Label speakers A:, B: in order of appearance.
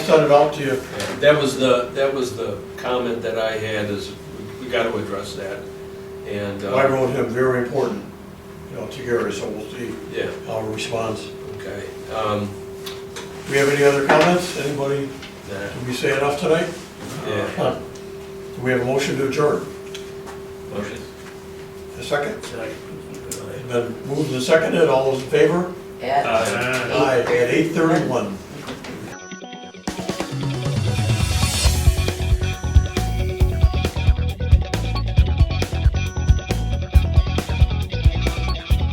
A: sent it out to you.
B: That was the, that was the comment that I had is we got to address that. And,
A: I
B: uh,
A: wrote him, very important, you know, to Gary, so we'll see
B: yeah,
A: how he responds.
B: okay. Um,
A: Do we have any other comments? Anybody,
B: that-
A: did we say enough tonight?
B: Yeah.
A: Huh. Do we have a motion to adjourn?
C: Motion.
A: A second? Then moved and seconded, all those in favor?
B: Uh,
D: At
A: Aye, at eight thirty-one.